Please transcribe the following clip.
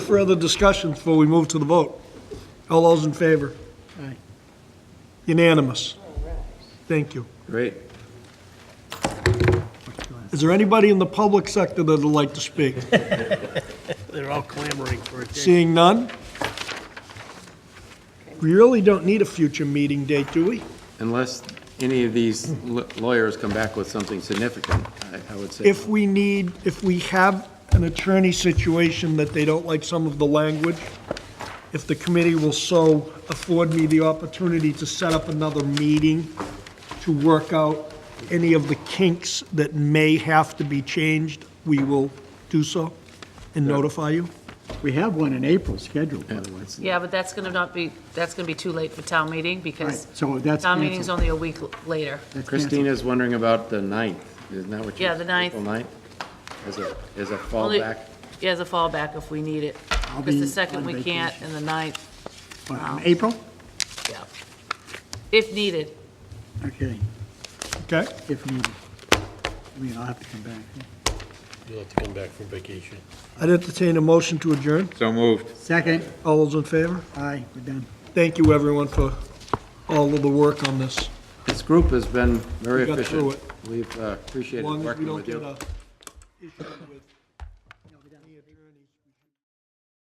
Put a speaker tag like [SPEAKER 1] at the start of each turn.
[SPEAKER 1] further discussion before we move to the vote? All those in favor?
[SPEAKER 2] Aye.
[SPEAKER 1] Unanimous. Thank you.
[SPEAKER 3] Great.
[SPEAKER 1] Is there anybody in the public sector that would like to speak?
[SPEAKER 2] They're all clamoring for a date.
[SPEAKER 1] Seeing none? We really don't need a future meeting date, do we?
[SPEAKER 3] Unless any of these l- lawyers come back with something significant, I- I would say.
[SPEAKER 1] If we need, if we have an attorney situation that they don't like some of the language, if the committee will so afford me the opportunity to set up another meeting to work out any of the kinks that may have to be changed, we will do so and notify you.
[SPEAKER 2] We have one in April scheduled, by
[SPEAKER 3] Yeah,
[SPEAKER 2] the way.
[SPEAKER 3] it's-
[SPEAKER 4] Yeah, but that's going to not be, that's going to be too late for town meeting because
[SPEAKER 2] Right, so that's
[SPEAKER 4] town meeting's
[SPEAKER 2] canceled.
[SPEAKER 4] only a week l- later.
[SPEAKER 2] That's canceled.
[SPEAKER 3] Christina's wondering about the 9th, isn't that what you?
[SPEAKER 4] Yeah, the 9th.
[SPEAKER 3] April 9th, as a, as a
[SPEAKER 4] Only-
[SPEAKER 3] fallback.
[SPEAKER 4] Yeah, as a fallback if we need it.
[SPEAKER 2] I'll
[SPEAKER 4] Because
[SPEAKER 2] be
[SPEAKER 4] the second
[SPEAKER 2] on
[SPEAKER 4] we can't
[SPEAKER 2] vacation.
[SPEAKER 4] and the ninth,
[SPEAKER 2] Oh, in April?
[SPEAKER 4] yeah. If needed.
[SPEAKER 2] Okay,
[SPEAKER 1] Okay?
[SPEAKER 2] if needed. I mean, I'll have to come back.
[SPEAKER 5] You'll have to come back from vacation.
[SPEAKER 1] I'd entertain a motion to adjourn.
[SPEAKER 6] So moved.
[SPEAKER 2] Second,
[SPEAKER 1] All those in favor?
[SPEAKER 2] aye, we're done.
[SPEAKER 1] Thank you, everyone, for all of the work on this.
[SPEAKER 3] This group has been very
[SPEAKER 1] We got through
[SPEAKER 3] efficient. We've uh,
[SPEAKER 1] As
[SPEAKER 3] appreciated
[SPEAKER 1] long as we
[SPEAKER 3] working
[SPEAKER 1] don't
[SPEAKER 3] with you.
[SPEAKER 1] get a issue with